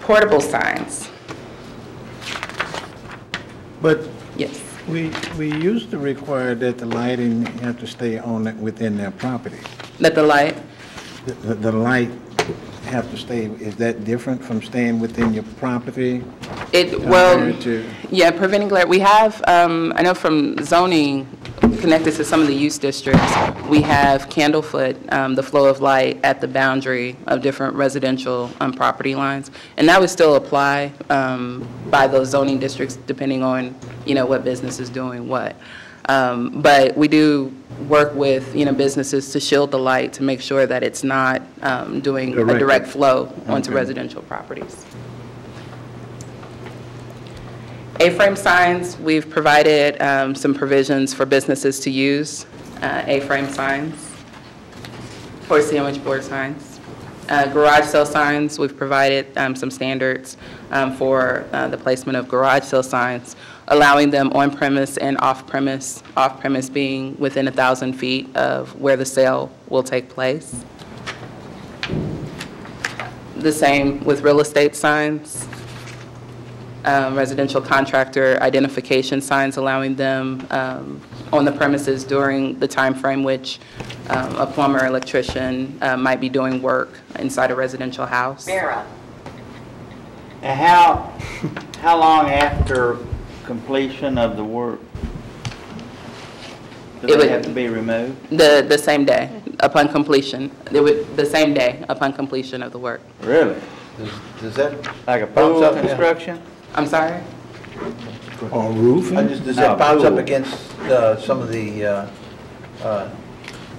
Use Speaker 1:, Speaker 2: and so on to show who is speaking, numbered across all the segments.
Speaker 1: portable signs.
Speaker 2: But
Speaker 1: Yes.
Speaker 2: we, we used to require that the lighting have to stay on it within their property.
Speaker 1: Let the light,
Speaker 2: The- The, the light have to stay, is that different from staying within your property?
Speaker 1: it, well,
Speaker 2: Compared to-
Speaker 1: yeah, preventing glare, we have, um, I know from zoning, connected to some of the use districts, we have candlefoot, um, the flow of light at the boundary of different residential um, property lines. And that would still apply um, by those zoning districts, depending on, you know, what business is doing what. Um, But we do work with, you know, businesses to shield the light, to make sure that it's not um, doing a
Speaker 2: Direct.
Speaker 1: direct flow onto
Speaker 2: Okay.
Speaker 1: residential properties. A-frame signs, we've provided um, some provisions for businesses to use, uh, A-frame signs, or sandwich board signs. Uh, Garage sale signs, we've provided um, some standards um, for uh, the placement of garage sale signs, allowing them on-premise and off-premise, off-premise being within 1,000 feet of where the sale will take place. The same with real estate signs um, residential contractor identification signs, allowing them um, on the premises during the time frame which um, a plumber, electrician uh, might be doing work inside a residential house.
Speaker 3: Vera.
Speaker 4: And how, how long after completion of the work?
Speaker 1: It
Speaker 4: Do
Speaker 1: would-
Speaker 4: they have to be removed?
Speaker 1: The, the same day upon completion, it would, the same day upon completion of the work.
Speaker 4: Really?
Speaker 5: Does that,
Speaker 4: Like a pump up construction?
Speaker 1: I'm sorry?
Speaker 2: Or roofing?
Speaker 5: I just- does
Speaker 4: No,
Speaker 5: that bounce up
Speaker 4: pool.
Speaker 5: against uh, some of the, uh, uh,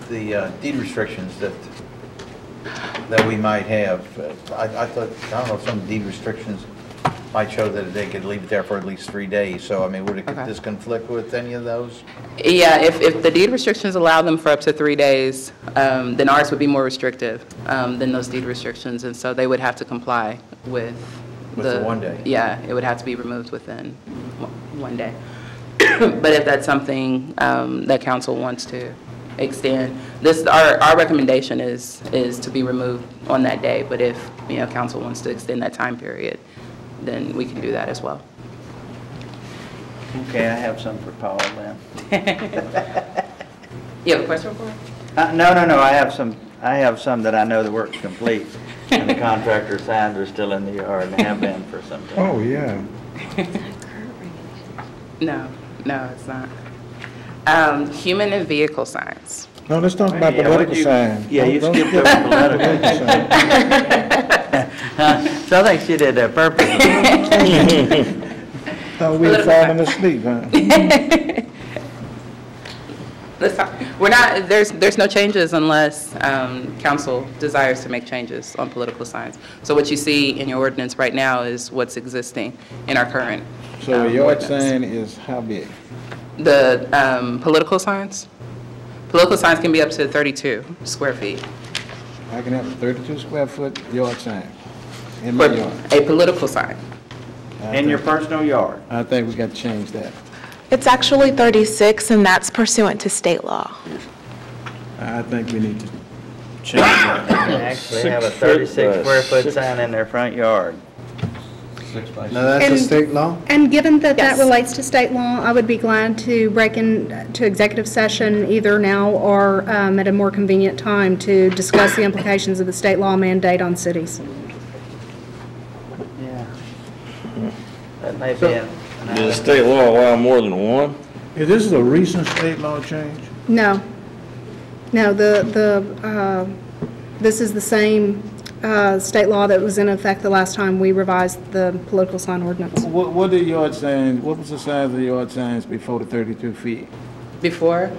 Speaker 5: the uh, deed restrictions that, that we might have? Uh, I, I thought, I don't know, some deed restrictions might show that they could leave it there for at least three days, so I mean, would it, could
Speaker 1: Okay.
Speaker 5: this conflict with any of those?
Speaker 1: Yeah, if, if the deed restrictions allow them for up to three days, um, then ours would be more restrictive um, than those deed restrictions, and so they would have to comply with the...
Speaker 5: With the one day.
Speaker 1: Yeah, it would have to be removed within one- one day. But if that's something um, that council wants to extend, this, our, our recommendation is, is to be removed on that day, but if, you know, council wants to extend that time period, then we can do that as well.
Speaker 4: Okay, I have some for Paul then.
Speaker 1: You have a question for me?
Speaker 4: Uh, no, no, no, I have some, I have some that I know the work's complete, and the contractor signs are still in the yard and have been for some time.
Speaker 2: Oh, yeah.
Speaker 1: No, no, it's not. Um, Human and vehicle signs.
Speaker 2: No, let's talk about
Speaker 4: Yeah,
Speaker 2: the
Speaker 4: what'd
Speaker 2: political
Speaker 4: you-
Speaker 2: sign.
Speaker 4: Yeah, you
Speaker 2: Don't- don't
Speaker 4: skipped
Speaker 2: skip
Speaker 4: over political.
Speaker 2: political sign.
Speaker 4: So I think she did that purposely.
Speaker 2: Thought we had
Speaker 1: Political
Speaker 2: fallen asleep, huh?
Speaker 1: Let's talk- We're not, there's, there's no changes unless um, council desires to make changes on political signs. So what you see in your ordinance right now is what's existing in our current.
Speaker 2: So a
Speaker 1: um,
Speaker 2: yard
Speaker 1: ordinance.
Speaker 2: sign is how big?
Speaker 1: The um, political signs? Political signs can be up to 32 square feet.
Speaker 2: I can have a 32 square foot yard sign in my
Speaker 1: For
Speaker 2: yard.
Speaker 1: a political sign.
Speaker 2: I
Speaker 4: In your
Speaker 2: think-
Speaker 4: personal yard.
Speaker 2: I think we got to change that.
Speaker 6: It's actually 36, and that's pursuant to state law.
Speaker 2: I think we need to change that.
Speaker 4: They actually have a 36 square foot sign in their front yard.
Speaker 2: Now, that's a
Speaker 7: And-
Speaker 2: state law?
Speaker 7: And given that that
Speaker 6: Yes.
Speaker 7: relates to state law, I would be glad to break into executive session either now or um, at a more convenient time to discuss the implications of the state law mandate on cities.
Speaker 4: Yeah. That may be it.
Speaker 8: Does the state law allow more than one?
Speaker 2: Is this a recent state law change?
Speaker 7: No. No, the, the, uh, this is the same uh, state law that was in effect the last time we revised the political sign ordinance.
Speaker 2: What, what the yard signs, what was the size of the yard signs before the 32 feet?
Speaker 1: Before?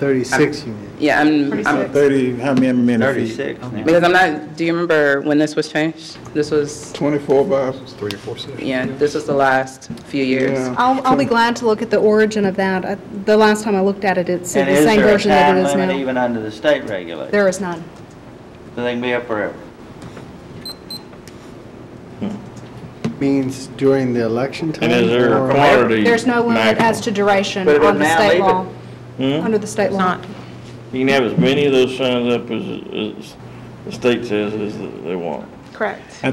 Speaker 9: 36 units.
Speaker 1: Yeah, I'm, I'm
Speaker 2: 30, how many men feet?
Speaker 4: 36 now.
Speaker 1: Because I'm not, do you remember when this was changed? This was,
Speaker 9: 24 by
Speaker 1: yeah, this was the last few years.
Speaker 9: Yeah.
Speaker 7: I'll, I'll be glad to look at the origin of that. Uh, The last time I looked at it, it's
Speaker 4: And
Speaker 7: the
Speaker 4: is
Speaker 7: same
Speaker 4: there a
Speaker 7: version that it
Speaker 4: time
Speaker 7: is
Speaker 4: limit
Speaker 7: now.
Speaker 4: even under the state regulation?
Speaker 7: There is none.
Speaker 4: So they can be up forever?
Speaker 9: means during the election time?
Speaker 8: And is there
Speaker 9: or-
Speaker 8: a quantity?
Speaker 7: There's no limit
Speaker 8: maximum?
Speaker 7: as to duration
Speaker 4: But it
Speaker 7: on
Speaker 4: would
Speaker 7: the
Speaker 4: now
Speaker 7: state
Speaker 4: leave
Speaker 7: law,
Speaker 8: Hmm?
Speaker 7: under the state law.
Speaker 8: You can have as many of those signs up as, as the state says is that they want.
Speaker 6: Correct.